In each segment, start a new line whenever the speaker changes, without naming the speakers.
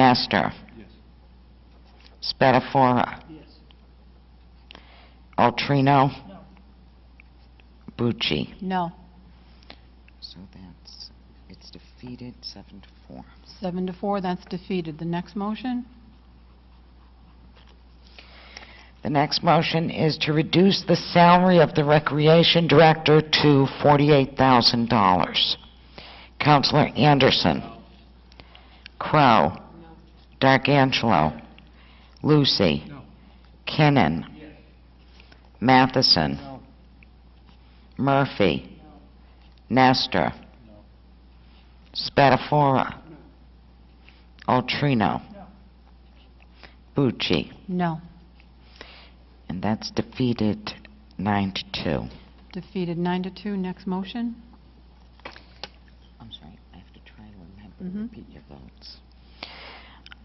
Nestor.
Yes.
Spatafora.
Yes.
Altrino.
No.
Bucci.
No.
So that's, it's defeated seven to four.
Seven to four, that's defeated. The next motion?
The next motion is to reduce the salary of the Recreation Director to $48,000. Counselor Anderson. Crow. D'Angelo. Lucy.
No.
Kinnon.
Yes.
Matheson.
No.
Murphy. Nestor.
No.
Spatafora. Altrino.
No.
Bucci.
No.
And that's defeated nine to two.
Defeated nine to two. Next motion?
I'm sorry, I have to try to remember,
Mhm.
repeat your votes.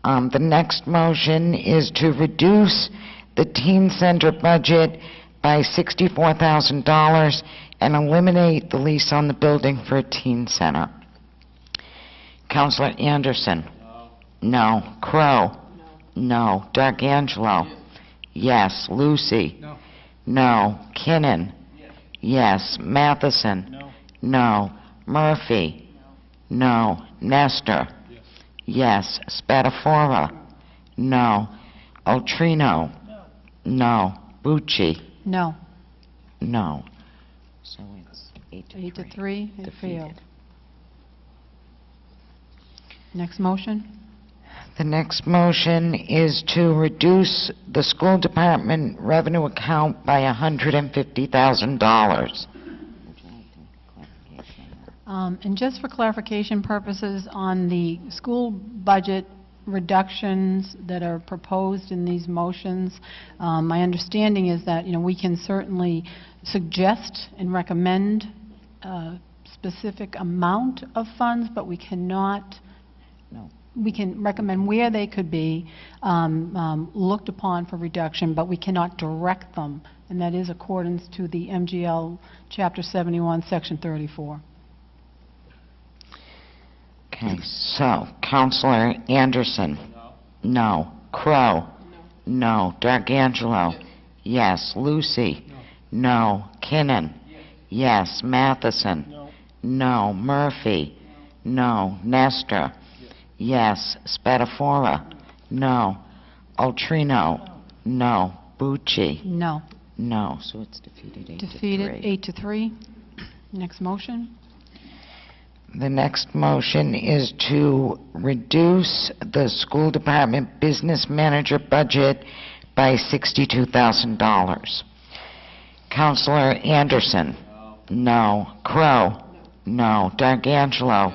Um, the next motion is to reduce the teen center budget by sixty-four thousand dollars and eliminate the lease on the building for a teen center. Counselor Anderson?
No.
No. Crow? No. D'Angelo? Yes. Lucy?
No.
No. Kinnon?
Yes.
Yes. Matheson?
No.
No. Murphy? No. Nestor? Yes.
Yes.
Spatafora? No. Altrino?
No.
No. Bucci?
No.
No. So it's eight to three.
Eight to three, it failed.
Defeated.
Next motion?
The next motion is to reduce the school department revenue account by $150,000.
Um, And just for clarification purposes, on the school budget reductions that are proposed in these motions, um, my understanding is that, you know, we can certainly suggest and recommend a specific amount of funds, but we cannot
No.
we can recommend where they could be um, um, looked upon for reduction, but we cannot direct them, and that is accordance to the MGL Chapter 71, Section 34.
Okay, so, Counselor Anderson?
No.
No. Crow? No. D'Angelo? Yes. Lucy?
No.
No. Kinnon?
Yes.
Yes. Matheson?
No.
No. Murphy? No. Nestor? Yes. Spatafora? No. Altrino? No. Bucci?
No.
No. So it's defeated eight to three.
Defeated, eight to three. Next motion?
The next motion is to reduce the school department business manager budget by $62,000. Counselor Anderson?
No.
No. Crow? No. D'Angelo?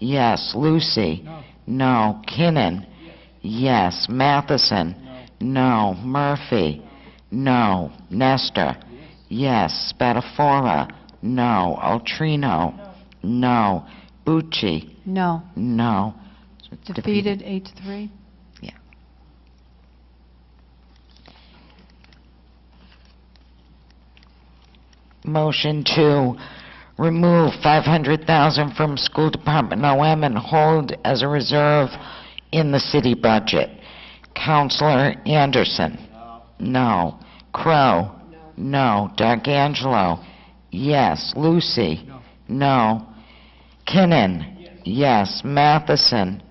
Yes. Lucy?
No.
No. Kinnon? Yes. Matheson?
No.
No. Murphy? No. Nestor?
Yes.
Yes. Spatafora? No. Altrino? No. Bucci?
No.
No. So it's
Defeated, eight to three.
Motion to remove 500,000 from school department OM and hold as a reserve in the city budget. Counselor Anderson?
No.
No. Crow? No. D'Angelo? Yes. Lucy?
No.
No. Kinnon? Yes. Matheson?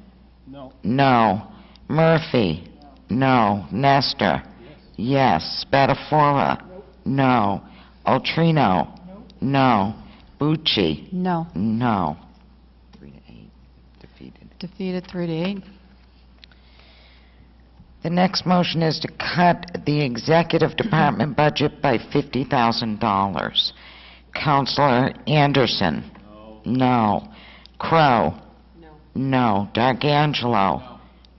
No.
No. Murphy? No. Nestor?
Yes.
Yes. Spatafora? No. Altrino? No. Bucci?
No.
No. Three to eight, defeated.
Defeated, three to eight.
The next motion is to cut the executive department budget by $50,000. Counselor Anderson? No.
No.
Crow? No. D'Angelo?
No.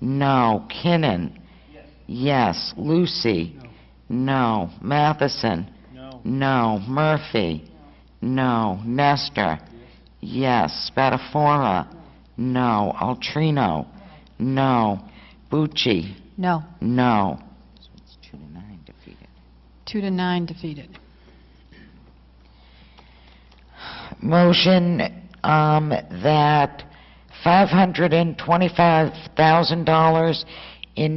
No. Kinnon?
Yes.
Yes. Lucy?
No.
No. Matheson?
No.
No. Murphy? No. Nestor? Yes. Spatafora? No. Altrino? No. Bucci?
No.
No. So it's two to nine defeated.
Two to nine, defeated.
Motion um, that $525,000 in